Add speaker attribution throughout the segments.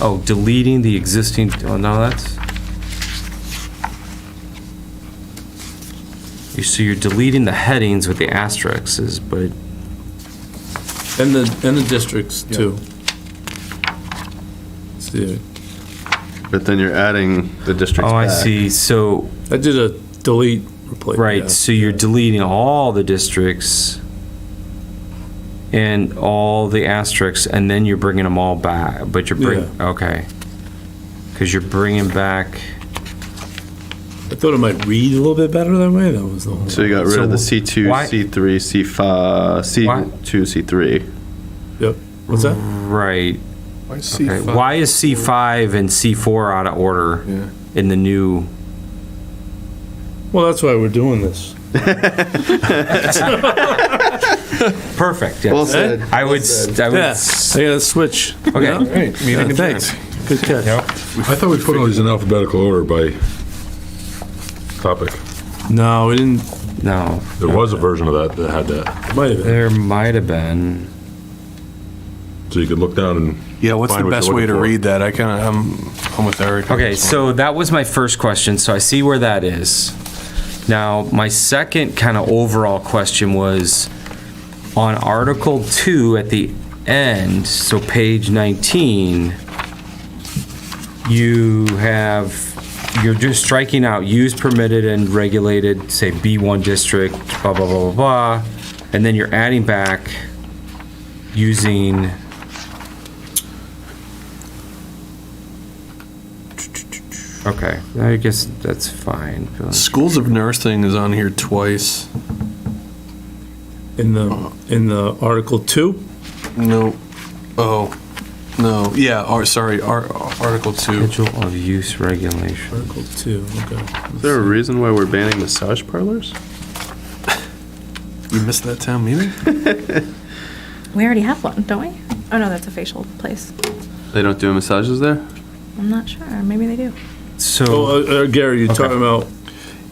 Speaker 1: Oh, deleting the existing, oh, no, that's... You- So you're deleting the headings with the asterisks, but,
Speaker 2: And the, and the districts too. See,
Speaker 3: But then you're adding the districts
Speaker 1: oh, I
Speaker 3: back.
Speaker 1: see, so,
Speaker 2: I did a delete, replace.
Speaker 1: right, so you're deleting all the districts and all the asterisks, and then you're bringing them all back, but you're bring, okay. Because you're bringing back,
Speaker 2: I thought it might read a little bit better that way, that was the whole.
Speaker 3: So you got rid of the
Speaker 1: So
Speaker 3: C2,
Speaker 1: why-
Speaker 3: C3, C5, C2, C3.
Speaker 2: Yep, what's that?
Speaker 1: right,
Speaker 4: Why is
Speaker 1: okay.
Speaker 4: C5?
Speaker 1: Why is C5 and C4 out of order
Speaker 4: Yeah.
Speaker 1: in the new?
Speaker 2: Well, that's why we're doing this.
Speaker 1: Perfect, yes.
Speaker 3: Well said.
Speaker 1: I would, s- I would,
Speaker 2: Yeah,
Speaker 1: s-
Speaker 2: I gotta switch.
Speaker 1: okay.
Speaker 4: All right, meeting
Speaker 2: Yeah,
Speaker 4: adjourned.
Speaker 2: Thanks, good catch.
Speaker 5: I thought we put all these in alphabetical order by topic.
Speaker 2: No, we didn't,
Speaker 1: No,
Speaker 5: There was a version of that that had that,
Speaker 2: might have been.
Speaker 1: there might have been.
Speaker 5: so you could look down and.
Speaker 4: Yeah, what's the
Speaker 5: Find what
Speaker 4: best
Speaker 5: you're
Speaker 4: way
Speaker 5: looking
Speaker 4: to
Speaker 5: for.
Speaker 4: read that? I kind of, I'm, I'm with Eric. on
Speaker 1: Okay,
Speaker 4: this one.
Speaker 1: so that was my first question, so I see where that is. Now, my second kind of overall question was on Article 2 at the end, so page 19, you have, you're just striking out use permitted and regulated, say B1 district, blah, blah, blah, blah, blah, and then you're adding back using Okay, I guess that's fine.
Speaker 4: Schools of nursing is on here twice. Uh,
Speaker 2: In the, in the Article Two,
Speaker 4: No, oh, no, yeah, or, sorry, Ar- Article Two.
Speaker 1: Schedule of use regulation.
Speaker 2: Article Two, okay.
Speaker 3: Is there a reason why we're banning massage parlors?
Speaker 4: You missed that town meeting?
Speaker 6: We already have one, don't we? Oh no, that's a facial place.
Speaker 3: They don't do massages there?
Speaker 6: I'm not sure. Maybe they do.
Speaker 1: So,
Speaker 2: Oh, uh, uh, Gary, you're talking about,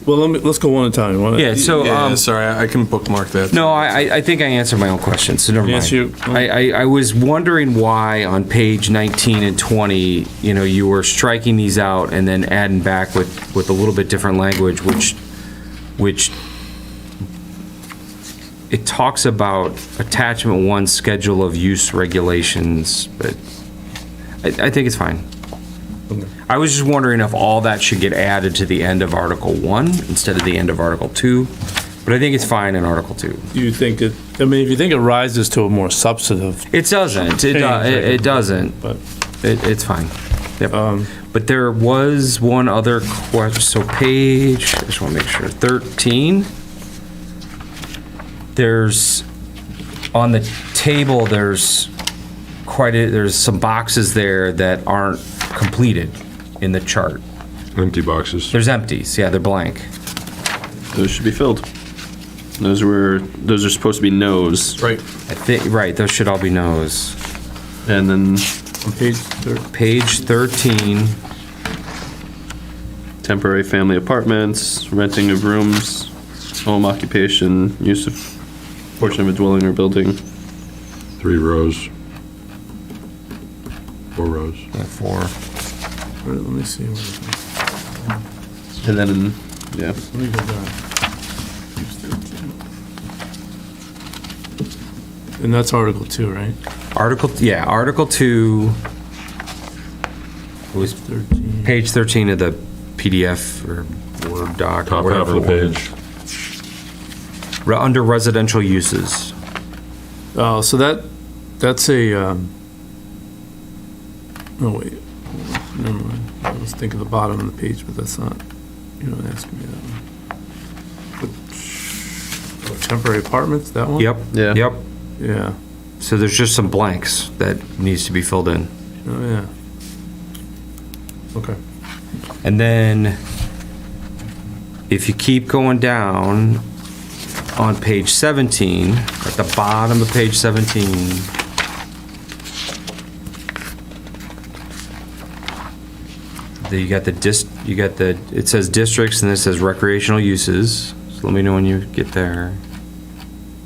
Speaker 2: well, let me, let's go one at a time. Why don't-
Speaker 1: yeah, so,
Speaker 4: Yeah,
Speaker 1: um,
Speaker 4: sorry, I I can bookmark that.
Speaker 1: no, I, I- I think I answered my own question, so never mind.
Speaker 2: Yes, you-
Speaker 1: I, I, I was wondering why on page 19 and 20, you know, you were striking these out and then adding back with, with a little bit different language, which, which it talks about attachment one, schedule of use regulations, but I, I think it's fine. I was just wondering if all that should get added to the end of Article One instead of the end of Article Two, but I think it's fine in Article Two.
Speaker 2: Do you think it, I mean, if you think it rises to a more substantive,
Speaker 1: It doesn't, it, do- it it doesn't,
Speaker 2: but.
Speaker 1: it, it's fine. Yep. But there was one other question, so page, I just wanna make sure, thirteen. There's, on the table, there's quite a, there's some boxes there that aren't completed in the chart.
Speaker 5: Empty boxes.
Speaker 1: There's empties, yeah, they're blank.
Speaker 3: Those should be filled. Those were, those are supposed to be no's.
Speaker 4: Right,
Speaker 1: I think, right, those should all be no's.
Speaker 3: And then
Speaker 2: On page thir-
Speaker 1: Page 13,
Speaker 3: temporary family apartments, renting of rooms, home occupation, use of portion of a dwelling or building.
Speaker 5: Three rows. Four rows.
Speaker 1: uh, 4.
Speaker 2: wait, let me see. where it is.
Speaker 3: And then, yeah.
Speaker 2: Let me go down. And that's Article Two, right?
Speaker 1: Article, yeah, Article 2, it was
Speaker 2: Thirteen.
Speaker 1: page 13 of the PDF or Word doc. or
Speaker 5: Top half
Speaker 1: whatever
Speaker 5: of the page.
Speaker 1: Re- Under residential uses.
Speaker 2: Oh, so that, that's a, um, no, wait, never mind. I was thinking the bottom of the page, but that's not, you don't ask me that one. But- oh, Temporary apartments, that one?
Speaker 1: Yep.
Speaker 3: Yeah.
Speaker 1: Yep.
Speaker 2: Yeah,
Speaker 1: So there's just some blanks that needs to be filled in.
Speaker 2: oh, yeah. Okay.
Speaker 1: And then, if you keep going down on page 17, at the bottom of page 17, there you got the dis, you got the, it says districts and then it says recreational uses. So let me know when you get there.